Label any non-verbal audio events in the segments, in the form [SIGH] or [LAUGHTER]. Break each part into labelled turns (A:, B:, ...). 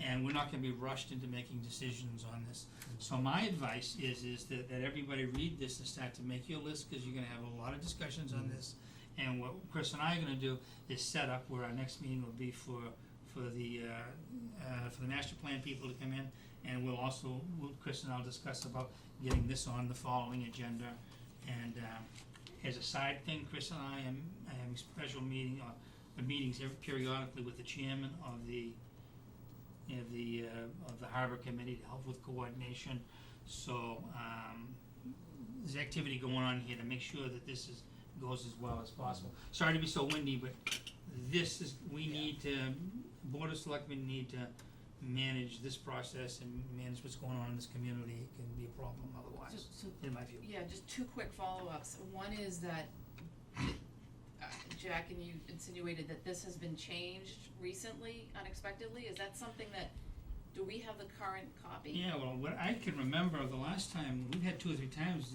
A: and we're not gonna be rushed into making decisions on this. So my advice is, is that, that everybody read this and start to make your list, cause you're gonna have a lot of discussions on this. And what Chris and I are gonna do is set up where our next meeting will be for, for the, uh, uh, for the master plan people to come in. And we'll also, we'll, Chris and I'll discuss about getting this on the following agenda. And, um, as a side thing, Chris and I am, I have a special meeting, uh, the meetings every periodically with the chairman of the, you know, the, uh, of the harbor committee to help with coordination. So, um, there's activity going on here to make sure that this is, goes as well as possible. Sorry to be so windy, but this is, we need to, Board of Selectmen need to manage this process and manage what's going on in this community. It can be a problem
B: So,
A: otherwise,
B: so,
A: in my view.
B: yeah, just two quick follow-ups. One is that, uh, Jack, and you insinuated that this has been changed recently, unexpectedly. Is that something that, do we have the current copy?
A: Yeah, well, what I can remember the last time, we've had two or three times,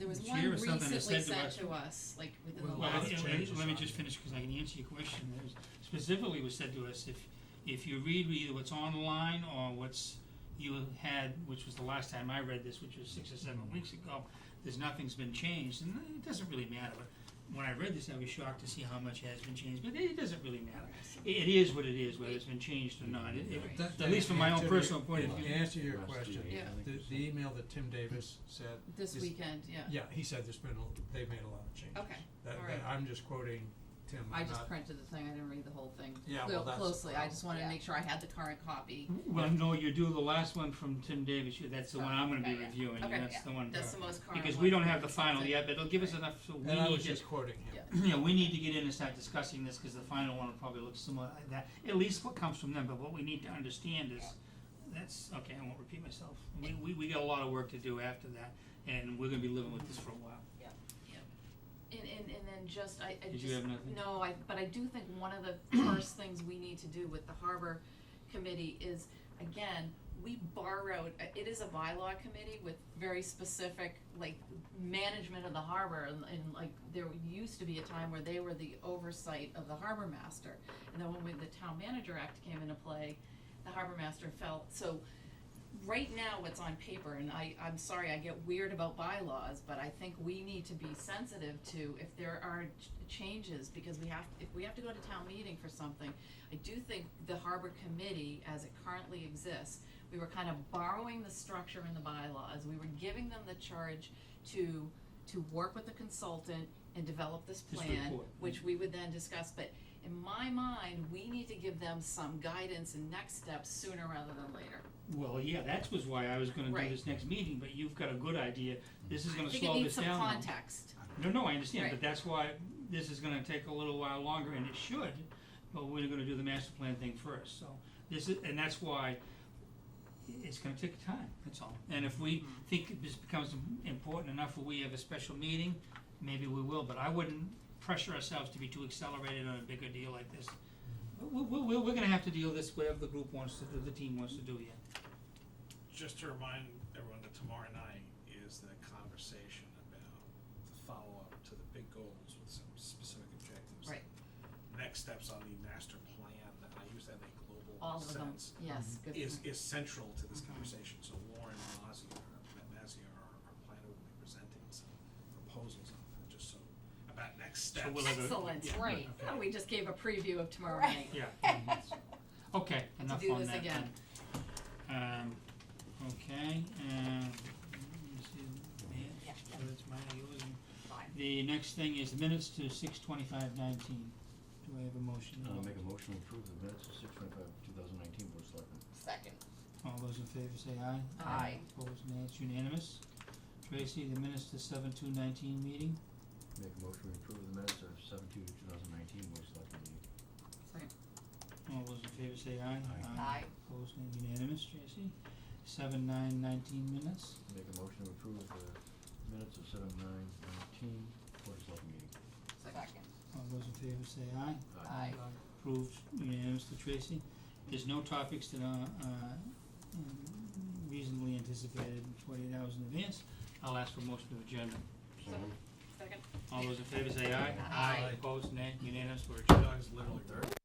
B: There was
A: It's
B: one
A: here or something
B: recently
A: that said
B: sent
A: to us-
B: to us, like within the
C: Well,
A: Well,
C: lot
B: last,
C: of
A: let-
C: changes
A: let, let me
C: on
A: just
C: it.
A: finish, cause I can answer your question, It was specifically was said to us, if, if you read either what's online or what's you had, which was the last time I read this, which was six or seven weeks ago, there's nothing's been changed, and it doesn't really matter, but when I read this, I was shocked to see how much has been changed, but it, it doesn't really matter. It, it is what it is, whether it's been changed or not, it, it,
B: Right.
C: That-
A: at least from my own
C: that-
A: personal point of
C: to
A: view.
C: Answer your
D: Last two
C: question,
D: days, I
B: Yeah.
D: think
C: the,
D: or
C: the email that Tim Davis said,
B: this
C: Is-
B: weekend, yeah.
C: yeah, he said there's been, a- they've made a lot of changes.
B: Okay,
C: That,
B: all
C: that,
B: right.
C: I'm just quoting Tim,
B: I
C: I'm
B: just
C: not,
B: printed the thing, I didn't read the whole thing
C: Yeah,
B: clo-
C: well, that's the
B: closely. I just wanted to
E: Yeah.
B: make sure I had the current copy.
A: Well, no, you do the last one from Tim Davis, you- that's the one I'm gonna be
E: Okay, yeah.
A: reviewing, and
B: Okay,
A: that's the one,
B: That's the most current one.
A: because we don't have the
B: That's
A: final
B: it.
A: yet, but it'll give us
B: Right.
A: enough, so we need to
C: and I
A: [CLEARS THROAT]
C: was just quoting him.
B: Yeah.
A: you know, we need to get in and start discussing this, cause the final one will probably look similar like that, at least what comes from them, but what we need to understand is, that's, okay, I won't repeat myself, we, we, we got a lot of work to do after that, and we're gonna be living with this for a while.
B: And, and, and then just, I, I
A: Did
B: just.
A: you have nothing?
B: No, I, but I do think one of the [CLEARS THROAT] first things we need to do with the harbor committee is, again, we borrowed, uh, it is a bylaw committee with very specific, like, management of the harbor, and, and like, there used to be a time where they were the oversight of the harbor master. And then when we, the town manager act came into play, the harbor master fell, so right now what's on paper, and I, I'm sorry, I get weird about bylaws, but I think we need to be sensitive to if there are ch- changes, because we have, if we have to go to town meeting for something, I do think the harbor committee, as it currently exists, we were kind of borrowing the structure in the bylaws, we were giving them the charge to, to work with the consultant and develop this
A: This
B: plan,
A: report.
B: which we would then discuss, but in my mind, we need to give them some guidance and next steps sooner rather than later.
A: Well, yeah, that was why I was gonna do
B: Right.
A: this next meeting, but you've got a good idea, this is
B: I
A: gonna
B: think it
A: slow this
B: needs some
A: down.
B: context.
A: No, no, I understand, but
B: Right.
A: that's why this is gonna take a little while longer, and it should, but we're gonna do the master plan thing first, so. This is, and that's why it's gonna take time, that's all. And if we think this becomes im- important enough where we have a special meeting, maybe we will, but I wouldn't pressure ourselves to be too accelerated on a bigger deal like this. We, we, we- we're gonna have to deal with this whatever the group wants to do, the team wants to do here.
F: just to remind everyone that tomorrow night is the conversation about the follow-up to the big goals with some specific objectives.
B: Right.
F: Next steps on the master plan, and I use that in a
B: All
F: global
B: of them,
F: sense,
B: yes,
A: Um,
B: good
F: is,
B: point. Mm-hmm.
F: is central to this conversation. So Lauren Mazia, Mazia, our, our planner, will be presenting some proposals on that, just so, about next steps.
A: we'll have a-
B: Excellent,
F: Yeah.
B: right,
F: Okay.
B: Oh, we just gave a preview of tomorrow night.
E: Right.
A: Yeah. Okay, enough
B: do
A: on
B: this
A: that
B: again.
A: then. Um, okay, um, let me see, man,
E: Yeah, yeah.
A: whether it's mine or yours, and-
E: Fine.
A: The next thing is minutes to six twenty-five nineteen. Do I have a motion?
D: Uh, make a motion to approve the minutes of six twenty-five, two thousand nineteen, Board of Selectmen.
E: Second.
A: All those in favor say aye.
B: Aye.
A: Opposed, nay, it's unanimous. Tracy, the minutes to seven two nineteen meeting.
D: Make a motion to approve the minutes of seven-two, two thousand nineteen, Board of Selectmen meeting.
B: Sorry.
A: All those in favor say aye.
D: Aye.
E: Aye.
A: Opposed, nay, unanimous, Tracy. Seven nine nineteen minutes.
D: Make a motion to approve the minutes of seven-nine nineteen, Board of Selectmen meeting.
E: Second.
A: All those in favor say aye.
E: Aye.
A: Approved unanimously, Tracy. There's no topics that are, uh, um, reasonably anticipated forty-eight hours in advance. I'll ask for motion to adjourn.
D: So moved.
B: Second.
A: All those in favor say aye.
B: Aye.
A: Opposed, nay, unanimous, we're adjourned.
F: Dogs literally.
D: All in favor?